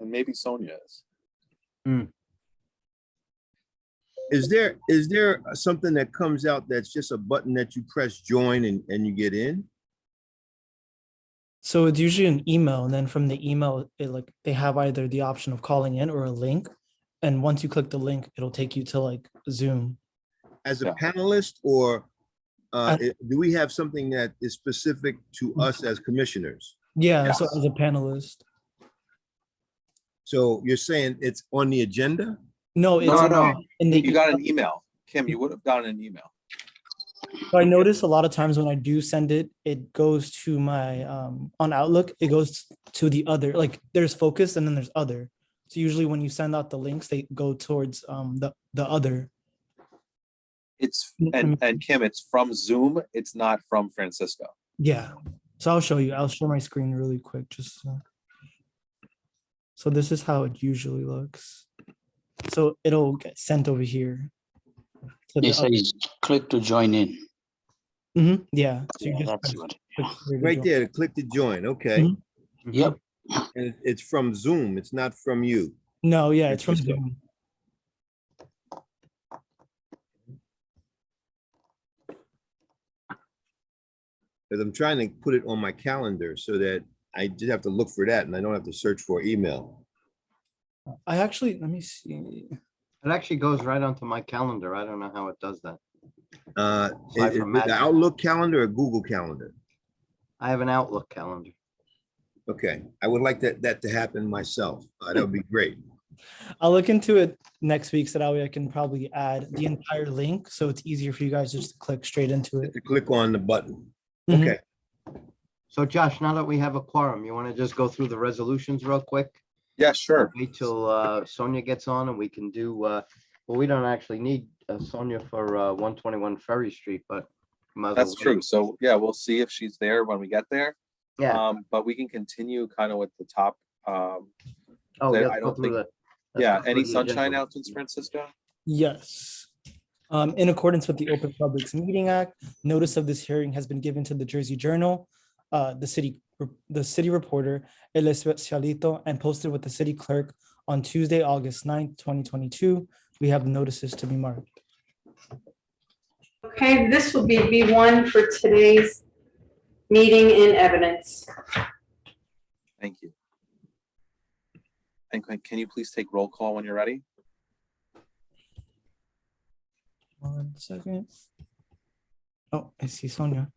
and maybe Sonia is. Is there, is there something that comes out that's just a button that you press join and, and you get in? So it's usually an email, and then from the email, it like they have either the option of calling in or a link. And once you click the link, it'll take you to like Zoom. As a Yeah. panelist or uh, Uh, i- do we have something that is specific to us as commissioners? Yeah, so Yes. as a panelist. So you're saying it's on the agenda? No, it's No, in- no, in the you got an email. Kim, you would have gotten an email. So I notice a lot of times when I do send it, it goes to my um on Outlook, it goes to the other, like there's focus and then there's other. So usually when you send out the links, they go towards um the the other. It's, Mm, and, and Kim, it's from Zoom. It's not from Francisco. Yeah. So I'll show you. I'll show my screen really quick just so. So this is how it usually looks. So it'll get sent over here. to the It oth- says click to join in. Mhm, Yeah. So you Yeah, just that's press what. click here to Right join. there, to click to join, okay. Mhm. Yep, And it- it's from Zoom, it's not from you. No, yeah, it's from Interesting. Zoom. Because I'm trying to put it on my calendar so that I just have to look for that and I don't have to search for email. I actually, let me see. It actually goes right onto my calendar. I don't know how it does that. Uh, Aside is- is from it the Magic. Outlook calendar or Google calendar? I have an Outlook calendar. Okay, I would like that, that to happen myself. Uh, That would be great. I'll look into it next week, so that way I can probably add the entire link, so it's easier for you guys just to click straight into it. To click on the button. Mhm. Okay, So Josh, now that we have a quorum, you want to just go through the resolutions real quick? Yeah, sure. Wait till uh, Sonia gets on and we can do, uh, well, we don't actually need uh, Sonia for uh, 121 Ferry Street, but. might as well That's wait. true. So, yeah, we'll see if she's there when we get there. Yeah. Um, but we can continue kind of with the top. Um, Oh, that yeah, I let's go don't through think- the- let's yeah, go through any the sunshine agenda. announcements, Francisco? Yes. Um, in accordance with the Open Publics Meeting Act, notice of this hearing has been given to the Jersey Journal, uh, the city, the city reporter, El Especialito, and posted with the city clerk on Tuesday, August 9th, twenty twenty-two. We have notices to be marked. Okay, this will be B1 for today's meeting in evidence. Thank you. And can- can you please take roll call when you're ready? One second. Oh, I see Sonia.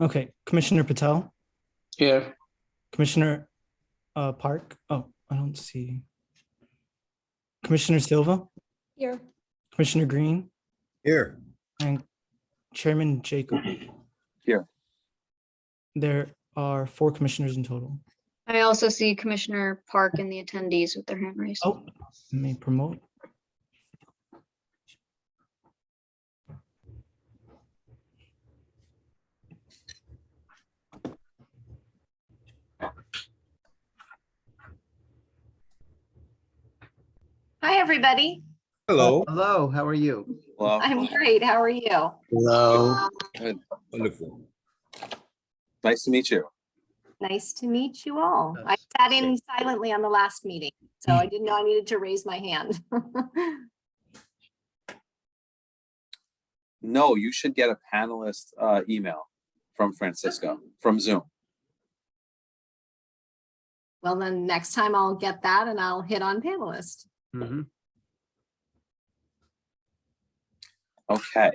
Okay, Commissioner Patel, here, Commissioner uh, Park. Oh, I don't see. Commissioner Silva, Here. Commissioner Green, here. and Chairman Jacob. Here. There are four commissioners in total. I also see Commissioner Park and the attendees with their hand raised. Oh, let me promote. Hi, everybody. Hello, Hello, how are you? Well, I'm great. How are you? hello. wonderful. nice to meet you. Nice to meet you all. I That's sat in silently on the last meeting, so I didn't know I needed to raise my hand. No, you should get a panelist uh, email from Francisco, from Zoom. Well, then next time I'll get that and I'll hit on panelist. Mhm. Okay.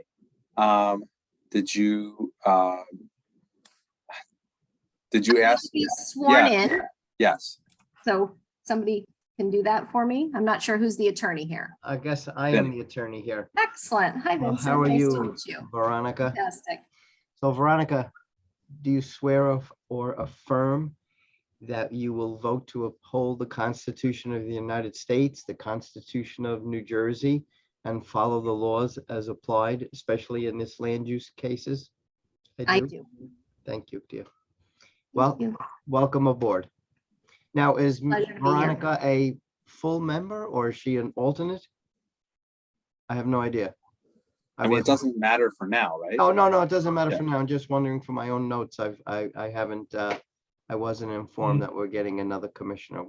Um, did you, um, did you ask? Be sworn Yeah. in, Yes, so somebody can do that for me. I'm not sure who's the attorney here. I guess I am Vinny. the attorney here, Excellent. Hi, Well, Vincent. how are Nice to you? meet you. Veronica. Fantastic. So Veronica, do you swear of- or affirm that you will vote to uphold the Constitution of the United States, the Constitution of New Jersey, and follow the laws as applied, especially in this land use cases? I do. Thank you, dear. Well, you. welcome aboard. Now, is M- Pleasure to be here. Veronica a full member or is she an alternate? I have no idea. I mean, it wasn't- doesn't matter for now, right? Oh, no, no, it doesn't matter Yeah. for now. I'm just wondering Mm-hmm. for my own notes. I've, I, I haven't, uh, I wasn't informed that we're getting another commissioner.